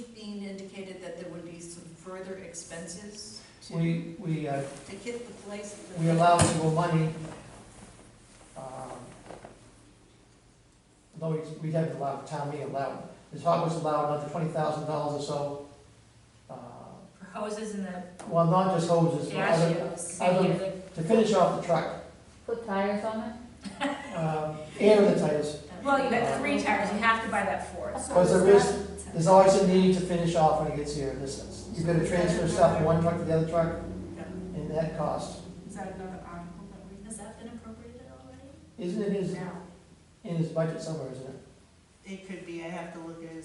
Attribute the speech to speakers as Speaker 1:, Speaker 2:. Speaker 1: expenses to,
Speaker 2: We, we, uh,
Speaker 1: to get the place.
Speaker 2: we allow civil money. um, Although we, we haven't allowed, town meeting allowed, Ms. Hart was allowed another twenty thousand dollars or so. uh,
Speaker 3: For hoses and the
Speaker 2: Well, not just hoses, but
Speaker 3: dash
Speaker 2: other,
Speaker 3: shoes.
Speaker 2: I don't- to finish off the truck,
Speaker 4: Put tires on it?
Speaker 2: um, and the tires.
Speaker 3: Well, you got three tires, you have to buy that fourth.
Speaker 2: Because there is, there's always a need to finish off when it gets here, this, you've gotta transfer stuff from one truck to the other truck, and that cost.
Speaker 1: Is that another article that we,
Speaker 3: Has that been appropriated already?
Speaker 2: Isn't it in his,
Speaker 3: No.
Speaker 2: in his budget somewhere, isn't it?
Speaker 1: it could be, I have to look at it